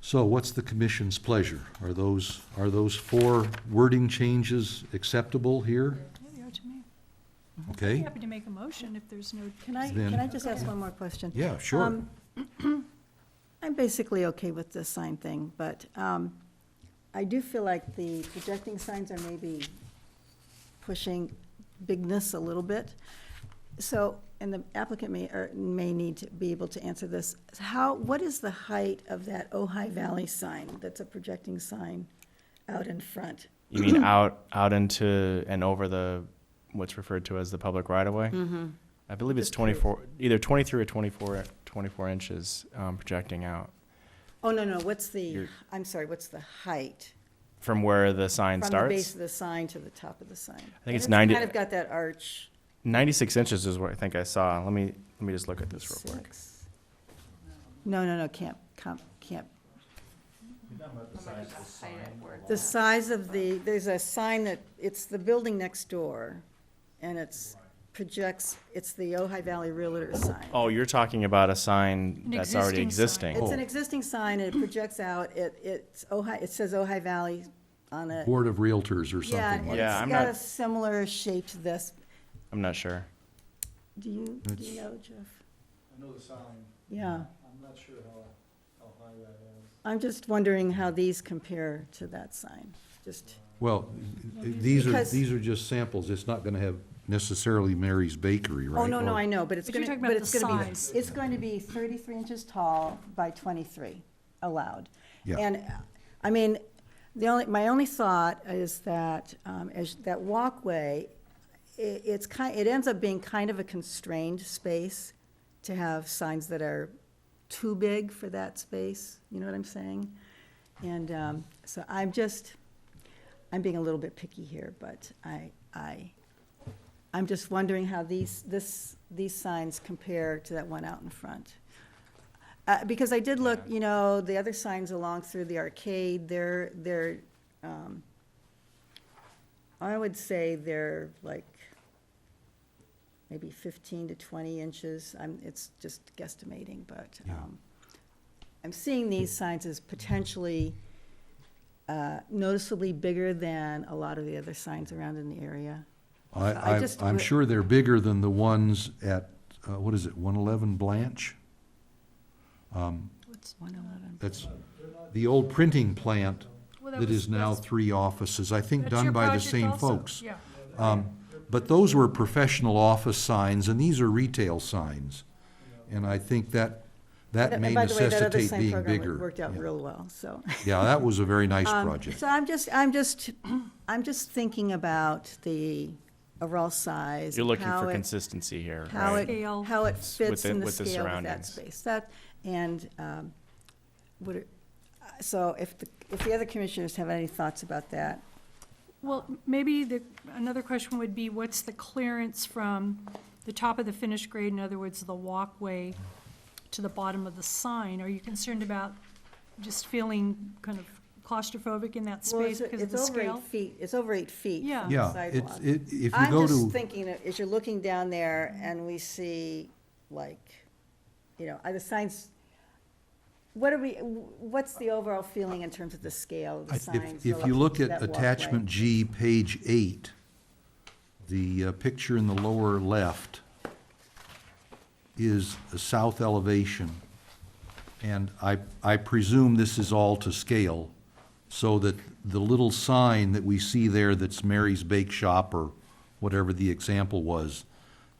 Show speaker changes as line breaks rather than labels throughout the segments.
So what's the commission's pleasure? Are those, are those four wording changes acceptable here?
Yeah, they are to me.
Okay?
Happy to make a motion if there's no.
Can I,
Then-
can I just ask one more question?
Yeah, sure.
Um, I'm basically okay with the sign thing, but um, I do feel like the projecting signs are maybe pushing bigness a little bit. So, and the applicant may, or may need to be able to answer this. How, what is the height of that Ojai Valley sign that's a projecting sign out in front?
You mean out out into and over the what's referred to as the public right of way? I believe it's
Just curious.
24, either 23 or 24, 24 inches um, projecting out
Oh, no, no, what's the,
You're-
I'm sorry, what's the height?
from where the sign
From the
starts.
base of the sign to the top of the sign. I
it's 90
Kind of got that arch.
96 inches is what I think I saw. Let me let me just look at this real quick.
Six. No, no, no, can't, can't, can't. The size of the, there's a sign that, it's the building next door, and it's projects, it's the Ojai Valley Realtor sign.
Oh, you're talking about a sign
An
that's already
existing
existing.
It's an existing sign, and it projects out, it, it's Ojai, it says Ojai Valley on it.
Board of Realtors or
Yeah,
something
and
like
Yeah,
it's
I'm
got
not-
a similar shape to this.
I'm not sure.
Do you, do
It's-
you know, Jeff?
I know the sign,
Yeah,
I'm not sure how, how high that is.
I'm just wondering how these compare to that sign, just.
Well, these are,
Because-
these are just samples. It's not gonna have necessarily Mary's Bakery, right?
Oh, no, no,
Or-
I know, but it's
But you're
gonna,
talking
but
about
it's
the
gonna be,
size.
it's going to be thirty-three inches tall by twenty-three allowed.
Yeah.
And, uh, I mean, the only, my only thought is that, um, as, that walkway, i it's kind, it ends up being kind of a constrained space to have signs that are too big for that space, you know what I'm saying? And, um, so I'm just, I'm being a little bit picky here, but I, I, I'm just wondering how these, this, these signs compare to that one out in front. Uh, because I did look, you know, the other signs along through the arcade, they're, they're, um, I would say they're like maybe fifteen to twenty inches. I'm, it's just guesstimating, but,
Yeah.
um, I'm seeing these signs as potentially, uh, noticeably bigger than a lot of the other signs around in the area.
I,
I
I,
just-
I'm sure they're bigger than the ones at, uh, what is it, one eleven Blanche? Um,
One eleven.
That's the old printing plant
Well, that
that
was-
is now
that's-
three offices, I think
That's your
done by the
project
same
also.
folks.
Yeah.
But those were professional office signs, and these are retail signs. And I think that, that may
And by the way, that other
necessitate
sign
being
program
bigger.
worked out
Yeah.
real well, so.
Yeah, that was a very nice
Um,
project.
So I'm just, I'm just, I'm just thinking about the overall size.
You're looking
how
for
it-
consistency here,
How
right?
it,
Scale.
how it
It's
fits
within-
in the
with the
scale of that
surroundings.
space. That, and um, would, it- uh, so if, the if the other commissioners have any thoughts about that,
Well, maybe the, another question would be, what's the clearance from the top of the finished grade, in other words, the walkway to the bottom of the sign? Are you concerned about just feeling kind of claustrophobic in that
well,
space
it's,
because of
it's
the
over eight
scale?
feet, it's over eight feet
Yeah.
from the
Yeah, it's,
sidewalk.
it, if you
I'm
go
just
to,
thinking, that as you're looking down there and we see like, you know, are the signs, what are we, what's the overall feeling in terms of the scale of the
if,
signs?
if you look at attachment G, page eight, the uh, picture in the lower left is a south elevation. And I, I presume this is all to scale, so that the little sign that we see there that's Mary's Bake Shop or whatever the example was,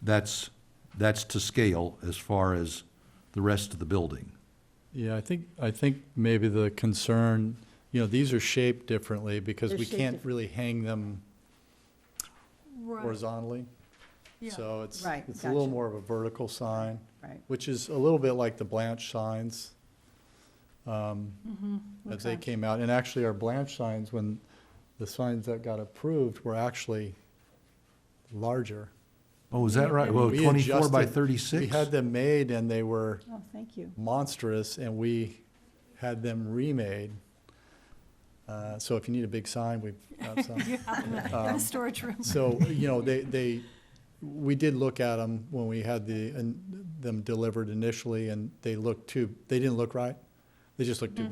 that's, that's to scale as far as the rest of the building.
Yeah, I think, I think maybe the concern, you know, these are shaped differently because
They're
we
shaped
can't
dif-
really hang them
Right,
horizontally.
yeah.
So it's,
Right,
it's a little
gotcha.
more of a vertical sign,
Right,
which is a little bit like the Blanche signs. um, As they
Mm-hmm. Okay.
came out, and actually our Blanche signs, when the signs that got approved were actually larger.
Oh, is that right?
Yeah,
Well,
We
twenty-four by
adjusted-
thirty-six?
We had them made and they were
oh, thank you.
monstrous and we had them remade. Uh, So if you need a big sign, we've got some.
You have them in the storage room.
So, you know, they, they, we did look at them when we had the, and them delivered initially and they looked too, they didn't look right. They just looked too